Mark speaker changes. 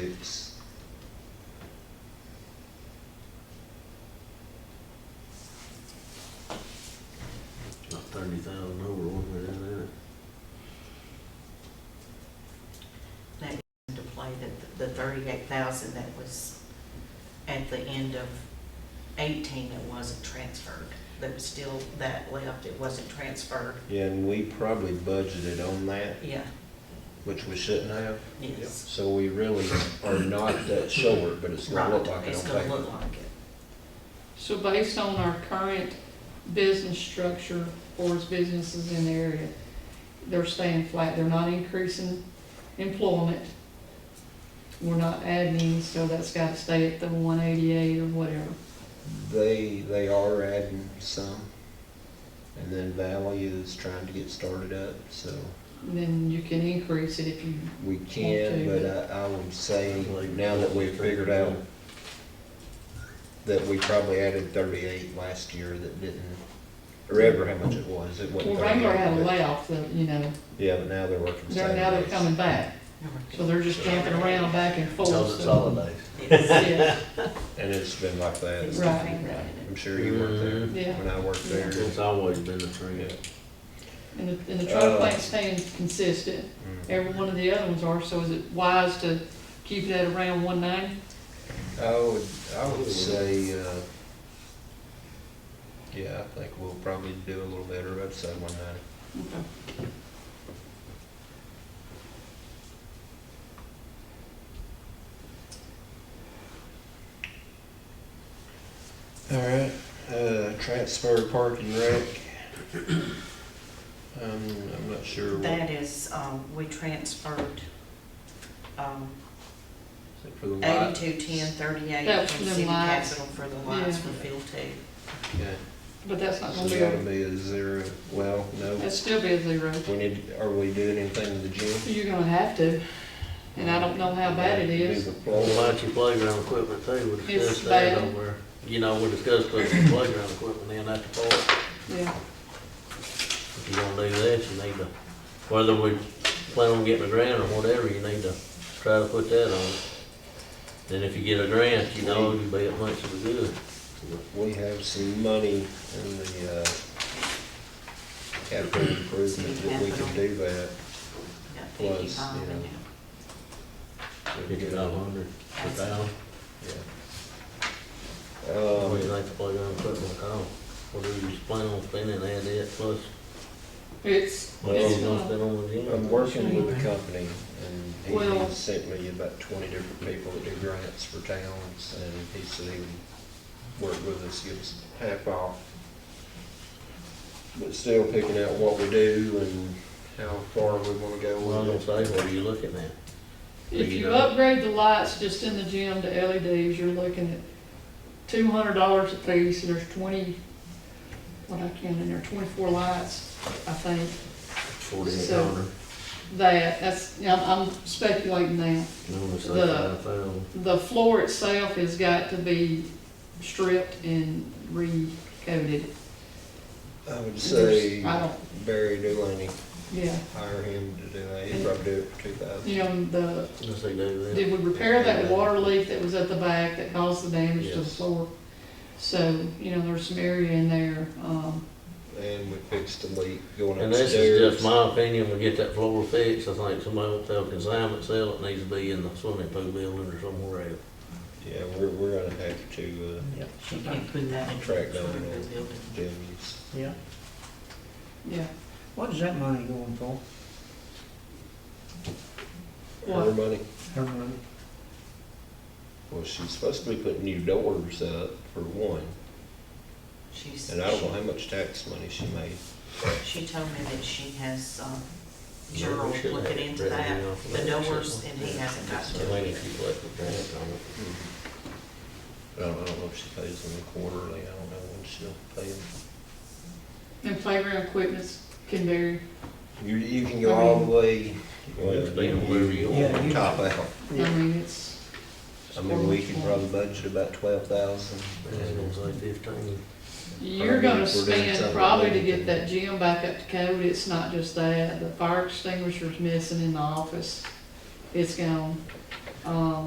Speaker 1: six.
Speaker 2: About thirty thousand over one way, isn't it?
Speaker 3: That came into play, that the thirty-eight thousand that was at the end of eighteen that wasn't transferred. There was still that left, it wasn't transferred.
Speaker 1: Yeah, and we probably budgeted on that,
Speaker 3: Yeah,
Speaker 1: which we shouldn't have.
Speaker 3: yes.
Speaker 1: So we really are not that short, but it's gonna look like
Speaker 3: Right,
Speaker 1: it on
Speaker 3: it's gonna
Speaker 1: paper.
Speaker 3: look like it.
Speaker 4: So based on our current business structure, or as businesses in the area, they're staying flat, they're not increasing employment. We're not adding, any, so that's gotta stay at the one eighty-eight or whatever.
Speaker 1: They, they are adding some. And then Valley is trying to get started up, so
Speaker 4: And Then you can increase it if you,
Speaker 1: we can,
Speaker 4: Okay.
Speaker 1: but I, I would say now that we've figured out that we probably added thirty-eight last year that didn't, or ever how much it was, it wasn't
Speaker 4: well, Wrangler had a
Speaker 1: 38, but-
Speaker 4: layoff, that, you know,
Speaker 1: Yeah, but now they're working
Speaker 4: they're, now they're
Speaker 1: Saturdays.
Speaker 4: coming back, so they're just jumping around back and forth.
Speaker 2: Tell us it's
Speaker 4: so-
Speaker 2: holidays.
Speaker 3: Yes.
Speaker 4: Yeah,
Speaker 1: And it's been like that.
Speaker 3: It's
Speaker 4: Right.
Speaker 3: definitely that.
Speaker 1: I'm sure you weren't there
Speaker 4: Mm-hmm. yeah.
Speaker 1: when I worked there.
Speaker 2: It's always been a trend.
Speaker 1: Yeah.
Speaker 4: And the, and the
Speaker 1: Uh,
Speaker 4: truck plant's staying consistent.
Speaker 1: Mm.
Speaker 4: Every one of the other ones are, so is it wise to keep that around one ninety?
Speaker 1: I would, I would say, uh, yeah, I think we'll probably do a little better outside one ninety. All right, uh, transfer parking wreck. Um, I'm not sure what,
Speaker 3: That is, um, we transferred, um,
Speaker 1: is it for the light?
Speaker 3: eighty-two, ten, thirty-eight
Speaker 4: That's
Speaker 3: from
Speaker 4: the
Speaker 3: city
Speaker 4: lights.
Speaker 3: capital for the lights
Speaker 4: Yeah.
Speaker 3: for field two.
Speaker 1: Yeah,
Speaker 4: But that's not
Speaker 1: so
Speaker 4: gonna be,
Speaker 1: that'll
Speaker 4: a-
Speaker 1: be a zero, well, no,
Speaker 4: that'd still be a zero.
Speaker 1: we need, are we doing anything with the gym?
Speaker 4: You're gonna have to, and I don't know how bad it is.
Speaker 1: Do the
Speaker 2: What
Speaker 1: floor.
Speaker 2: about your playground equipment too? We
Speaker 4: It's
Speaker 2: discussed that
Speaker 4: bad.
Speaker 2: over, you know, we discussed putting playground equipment in at the park.
Speaker 4: Yeah,
Speaker 2: If you're gonna do that, you need to, whether we plan on getting a grant or whatever, you need to try to put that on. Then if you get a grant, you know, you'll be at much of a good.
Speaker 1: We have some money in the, uh, capital improvement that we can do that.
Speaker 3: Yeah,
Speaker 1: Plus,
Speaker 3: 55
Speaker 1: you know.
Speaker 3: and,
Speaker 1: We can
Speaker 2: Fifty
Speaker 1: do
Speaker 2: five
Speaker 1: that.
Speaker 2: hundred, a thousand.
Speaker 1: Yeah.
Speaker 2: What do
Speaker 1: Um,
Speaker 2: you think the playground equipment cost? What do you plan on spending, add that plus,
Speaker 4: it's,
Speaker 2: what
Speaker 4: it's
Speaker 2: you gonna
Speaker 4: gonna,
Speaker 2: spend on the gym?
Speaker 1: I'm working with a company and
Speaker 4: Well-
Speaker 1: he sent me about twenty different people that do grants for towns and he said he would work with us, give us half off. But still picking out what we do and how far we wanna go
Speaker 2: Well, I'm
Speaker 1: with
Speaker 2: gonna
Speaker 1: it.
Speaker 2: say, what are you looking at?
Speaker 4: if you upgrade the lights just in the gym to LEDs, you're looking at two hundred dollars a piece, and there's twenty, what I can in there, twenty-four lights, I think.
Speaker 2: Forty-eight
Speaker 4: So-
Speaker 2: hundred,
Speaker 4: That, that's, yeah, I'm I'm speculating now.
Speaker 2: I'm gonna say
Speaker 4: the-
Speaker 2: five thousand.
Speaker 4: The floor itself has got to be stripped and recoated.
Speaker 1: I would say
Speaker 4: There's- I don't,
Speaker 1: Barry Delaney,
Speaker 4: yeah,
Speaker 1: hire him to do that, he'd probably do it for two thousand.
Speaker 4: you know, the,
Speaker 2: Let's say do that.
Speaker 4: did we repair that water leak that was at the back that caused the damage to the
Speaker 2: Yes.
Speaker 4: floor? So, you know, there's some area in there, um,
Speaker 1: And we fixed the leak going
Speaker 2: And this is
Speaker 1: upstairs.
Speaker 2: just my opinion, we get that floor fixed, I think somebody will tell consignment sale, it needs to be in the swimming pool building or somewhere else.
Speaker 1: Yeah, we're, we're gonna have to, uh,
Speaker 5: Yeah,
Speaker 3: you can put that in.
Speaker 1: Track down
Speaker 3: for the
Speaker 1: there.
Speaker 3: building.
Speaker 1: uh, do these.
Speaker 5: yeah.
Speaker 4: yeah.
Speaker 5: What is that money going for?
Speaker 1: Her
Speaker 4: What,
Speaker 1: money,
Speaker 5: Her money?
Speaker 1: well, she's supposed to be putting new doors up for one,
Speaker 3: She's,
Speaker 1: and I don't know how much tax money she made.
Speaker 3: she told me that she has, um,
Speaker 2: we
Speaker 3: Gerald
Speaker 2: should have
Speaker 3: looking
Speaker 2: it
Speaker 3: into
Speaker 2: written
Speaker 3: that,
Speaker 2: down for
Speaker 3: the
Speaker 2: that,
Speaker 3: doors,
Speaker 2: shouldn't
Speaker 3: and
Speaker 2: we?
Speaker 3: he hasn't got
Speaker 2: I
Speaker 3: to
Speaker 2: mean,
Speaker 3: it.
Speaker 2: if you collect the grant on it.
Speaker 1: I don't, I don't know if she pays them quarterly, I don't know when she'll pay them.
Speaker 4: and playground equipments can vary.
Speaker 1: You, you can go all the way, well,
Speaker 2: It's been wherever
Speaker 1: you
Speaker 2: you want.
Speaker 5: Yeah,
Speaker 1: can
Speaker 5: you-
Speaker 1: top out.
Speaker 4: I
Speaker 5: Yeah.
Speaker 4: mean, it's.
Speaker 1: I mean, we can probably budget about twelve thousand,
Speaker 2: I was gonna say fifteen.
Speaker 4: You're gonna
Speaker 1: We're doing something
Speaker 4: spend probably to
Speaker 1: like
Speaker 4: get
Speaker 1: that.
Speaker 4: that gym back up to code, it's not just that, the fire extinguisher's missing in the office, it's gone. Um,